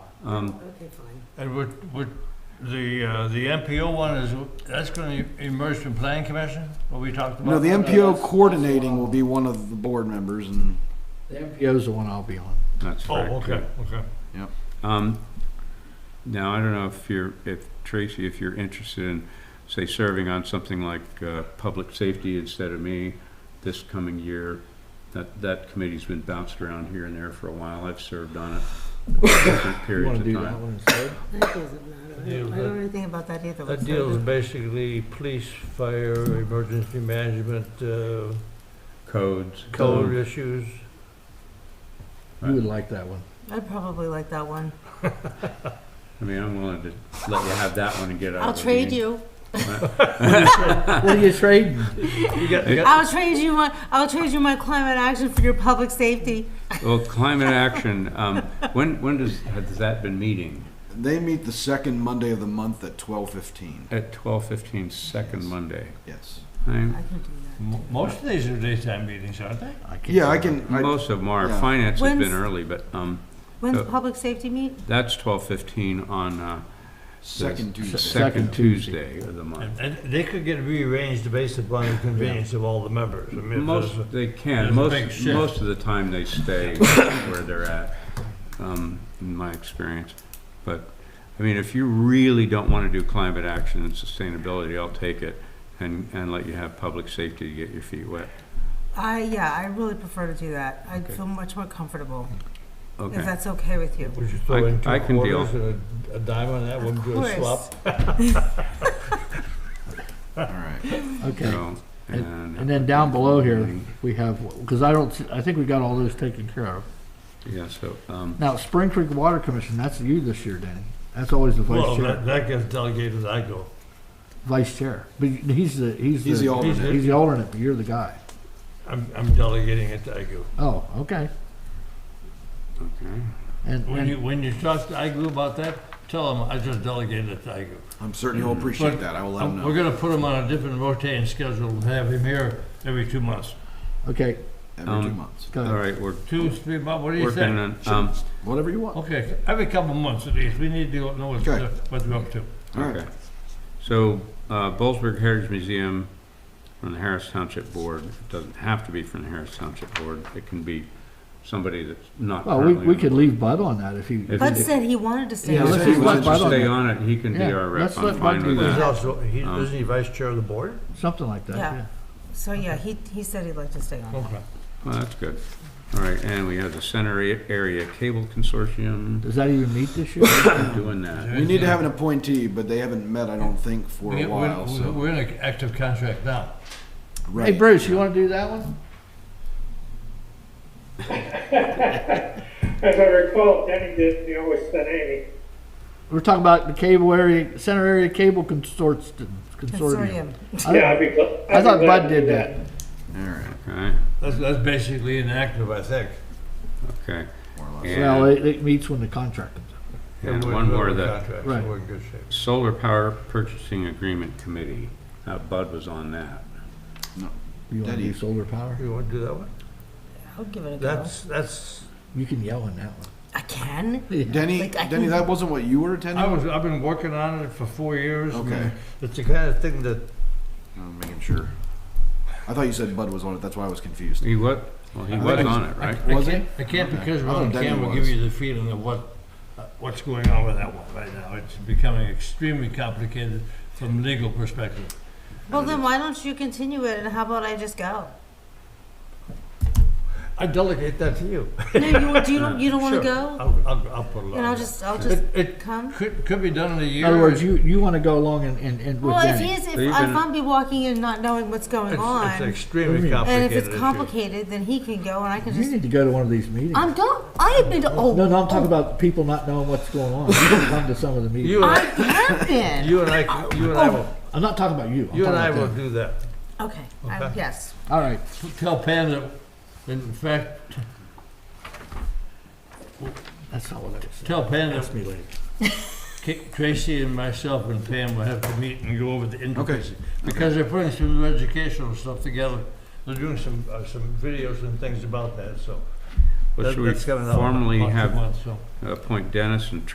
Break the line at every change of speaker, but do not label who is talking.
Um,
Okay, fine.
And would, would the, uh, the MPO one is, that's gonna emerge from planning commission, what we talked about?
No, the
that's-
MPO
that's
coordinating
wrong.
will be one of the board members and
The MPO's the one I'll be on.
that's
Oh,
correct.
okay, okay.
Um, now, I don't know if you're, if Tracy, if you're interested in, say, serving on something like, uh, public safety instead of me this coming year. That, that committee's been bounced around here and there for a while. I've served on it different
You
periods
wanna
of
do that
time.
one instead?
That doesn't matter. I don't- I don't know anything about that either.
That deals basically police, fire, emergency management, uh,
Codes.
code issues.
You would like that one.
I'd probably like that one.
I mean, I'm willing to let you have that one and get out
I'll
of the
trade
meeting.
you.
What are you trading?
You got,
you
I'll trade you my, I'll trade you my climate action for your public safety.
Well, climate action, um, when, when does, has that been meeting?
they meet the second Monday of the month at twelve fifteen.
At twelve fifteen, second Monday.
Yes.
I'm-
I can do that.
most of these are daytime meetings, aren't they?
can't
Yeah, I
do
can, I,
Most of them are.
yeah.
Finance has been
When's-
early, but, um,
When's
Uh,
public safety meet?
that's twelve fifteen on, uh,
second
the
Tuesday.
second
Second Tuesday.
Tuesday of the
And,
month.
and they could get rearranged based upon the convenience of all the members. I mean, if there's-
Most, they
there's
can,
a
most,
big shift.
most of the time they stay where they're at, um, in my experience. But, I mean, if you really don't wanna do climate action and sustainability, I'll take it and, and let you have public safety to get your feet wet.
I, yeah, I really prefer to do that. I'd
Okay.
feel much more comfortable, if
Okay,
that's okay with you.
Would you throw
I-
in
I
two
can deal.
quarters and a- a dime on that,
Of
wouldn't do a
course.
swap?
All right.
that. Okay,
so,
And-
and,
and then down below here, we have, because I don't, I think we got all those taken care of.
yeah, so, um,
Now, Spring Creek Water Commission, that's you this year, Danny. That's always the
Well,
vice
that,
chair.
that gets delegated, I go.
Vice chair. But he's the, he's the.
He's the alternate.
He's the alternate, but you're the guy.
I'm, I'm delegating it to IGO.
Oh, okay.
okay.
And,
When you,
and
when you talk to IGO about that, tell them I just delegated it to IGO.
I'm certain he'll appreciate that. I will let him
Um, We're
know.
gonna put him on a different rotating schedule and have him here every two months.
okay,
Every two
Um,
months.
go
All
ahead.
right, we're
Two, three months, what do you
working
think?
on, um,
Whatever you want.
Okay, every couple of months at least, we need to know what,
Okay.
what we're up to.
All right.
okay. So, uh, Bollesburg Heritage Museum from the Harris Township Board, it doesn't have to be from the Harris Township Board, it can be somebody that's not
Well, we,
currently.
we
on
could
the
leave Bud on that if you.
If-
Bud said he wanted to stay
Yeah,
on
board.
let's
If
it.
he
leave
wants
Bud
to
on
stay
there.
on it, he can be
Yeah,
our
let's
rep,
let
I'm
Bud
fine
do
with
that.
He's
that.
also, he,
Um,
isn't he vice chair of the board?
Something like that,
Yeah.
yeah.
So, yeah, he, he said he'd like to stay on it.
Okay.
Well, that's good. All right, and we have the Center A- Area Cable Consortium,
Does that even meet this year?
doing that.
We need to have an appointee, but they haven't met, I don't think, for
We- we-
a while,
we-
so.
We're in an active contract now.
Hey
Right.
Bruce, you wanna do that one?
As I recall, Denny did, you know, with Stanley.
We're talking about the cable area, center area cable consortium.
Consortium.
I
Yeah, I'd
don't-
be glad. I'd
I
be
thought
glad
Bud
to
did
do
that.
All right.
Okay,
That's, that's basically inactive, I think.
okay.
More or less.
Well,
And,
it, it meets when the contract comes up.
and
We're-
one
we're
more,
in
the
contract, so
Right.
We're in good shape.
Solar Power Purchasing Agreement Committee, Uh, Bud was on that.
You wanna
Daddy.
do solar power?
You wanna do that one?
I'll give it a go.
That's, that's,
You can yell on that one.
I can?
Denny,
Like, I
Denny,
can-
that wasn't what you were
I
attending?
was, I've been working on it for four years. and
Okay.
It's the kind of thing that,
I'm making sure. I thought you said Bud was on it, that's why I was confused.
He was, well, he
I
was
think
on it, right?
I
Was
can't,
it?
I can't
Okay.
because we're
I thought
on
Denny
camera, give
was.
you the feeling of what, uh, what's going on with that one right now. It's becoming extremely complicated from legal perspective.
Well, then why don't you continue it, and how about I just go?
I delegate that to you.
No, you, do you, don't- you don't want to
Sure.
go?
I'll, I'll, I'll put it
And I'll
on.
just, I'll just
It, it
come?
could, could be done in a
In
year.
other words, you, you wanna go along and, and, and with
Well, if
Danny.
he's, if
Are you
if
gonna-
I'm be walking in not knowing what's going
It's, it's
on,
extremely
Mm.
complicated.
and if it's
issue.
complicated, then he can go, and I can
You
just,
need to go to one of these meetings.
I'm go, I have been to, oh.
No, no, I'm talking about people not knowing what's going on. You can come to some of the
You
meetings.
and
oh, I
I,
have been.
you and I, you and I will,
I'm not talking about you. I'm
you and I
talking
will
about
do that.
Okay, I,
Okay.
yes.
them. All right,
Tell Pam that, in fact,
that's not what I was saying.
tell Pam that
Ask me later.
Ca- Tracy and myself and Pam will have to meet and go over the
Okay.
intricacies. Because they're putting some new educational stuff together. They're doing some, uh, some videos and things about that, so.
Well,
that-
should we
that's coming out in
formally
about two
have,
months, so.
appoint Dennis and